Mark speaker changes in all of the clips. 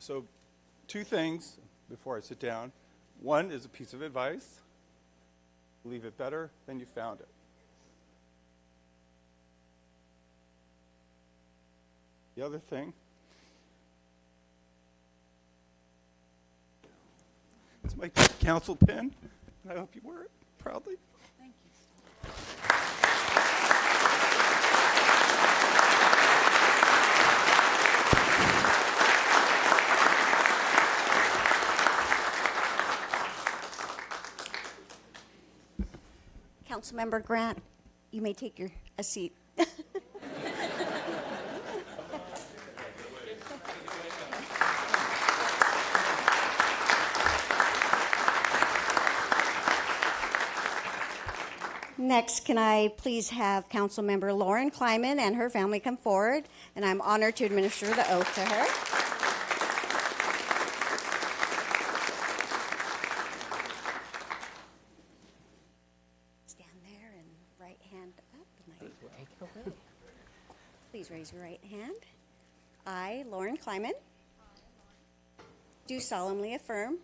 Speaker 1: So, two things before I sit down. One is a piece of advice leave it better than you found it. The other thing is my council pin, and I hope you wear it proudly.
Speaker 2: Thank you. Councilmember Grant, you may take your, a seat. Next, can I please have Councilmember Lauren Kleiman and her family come forward? And I'm honored to administer the oath to her. Stand there and right hand up. and I- Please raise your right hand. I, Lauren Kleiman, do solemnly affirm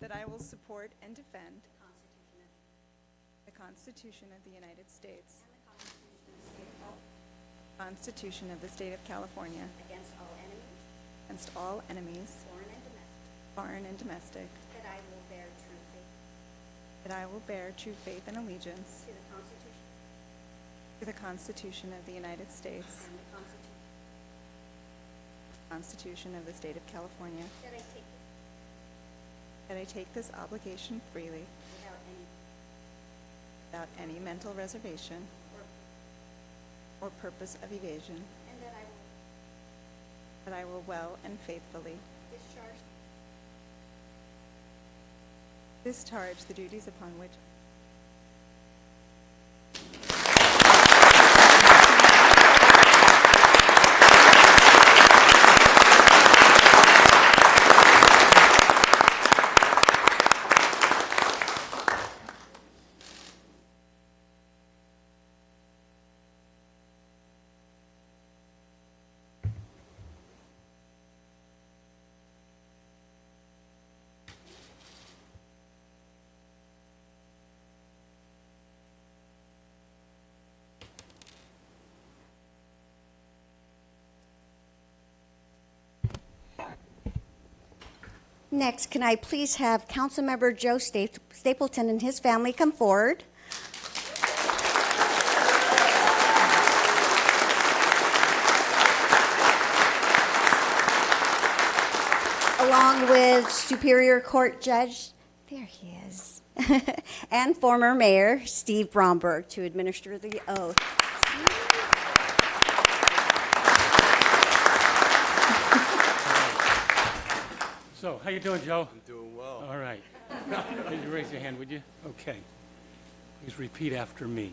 Speaker 3: That I will support and defend. That I will support and defend. The Constitution of the United States. Constitution of the State of California.
Speaker 2: against all enemies,
Speaker 3: Against all enemies,
Speaker 2: foreign and domestic,
Speaker 3: foreign and domestic.
Speaker 2: that I will bear true faith
Speaker 3: That I will bear true faith and allegiance
Speaker 2: to the Constitution
Speaker 3: to the Constitution of the United States.
Speaker 2: and the Constitution,
Speaker 3: Constitution of the State of California.
Speaker 2: that I take it
Speaker 3: That I take this obligation freely
Speaker 2: without any
Speaker 3: without any mental reservation
Speaker 2: or
Speaker 3: or purpose of evasion.
Speaker 2: And that I will
Speaker 3: That I will well and faithfully
Speaker 2: discharge
Speaker 3: Discharge the duties upon which.
Speaker 2: Next, can I please have Councilmember Joe Sta- Stapleton and his family come forward? Along with Superior Court Judge, there he is, and former Mayor Steve Bromberg to administer the oath.
Speaker 4: So, how you doing, Joe?
Speaker 5: Doing well.
Speaker 4: All right. Could you raise your hand, would you? Okay. Please repeat after me.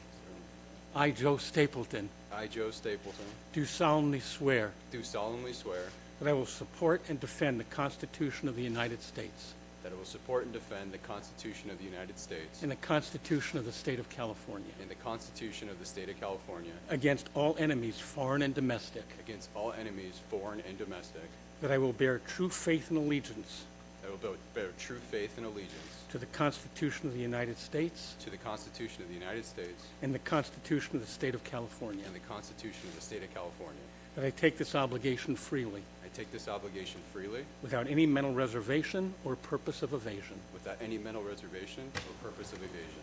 Speaker 4: I, Joe Stapleton,
Speaker 5: I, Joe Stapleton,
Speaker 4: do solemnly swear
Speaker 5: do solemnly swear
Speaker 4: that I will support and defend the Constitution of the United States
Speaker 5: that I will support and defend the Constitution of the United States
Speaker 4: and the Constitution of the State of California
Speaker 5: and the Constitution of the State of California
Speaker 4: against all enemies, foreign and domestic,
Speaker 5: against all enemies, foreign and domestic,
Speaker 4: that I will bear true faith and allegiance
Speaker 5: that I will bear- bear true faith and allegiance
Speaker 4: to the Constitution of the United States
Speaker 5: to the Constitution of the United States
Speaker 4: and the Constitution of the State of California,
Speaker 5: and the Constitution of the State of California.
Speaker 4: that I take this obligation freely
Speaker 5: I take this obligation freely,
Speaker 4: without any mental reservation or purpose of evasion.
Speaker 5: without any mental reservation or purpose of evasion.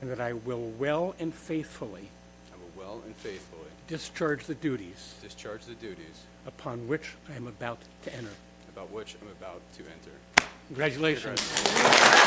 Speaker 4: And that I will well and faithfully
Speaker 5: I will well and faithfully
Speaker 4: discharge the duties
Speaker 5: discharge the duties
Speaker 4: upon which I am about to enter.
Speaker 5: about which I'm about to enter.
Speaker 4: Congratulations.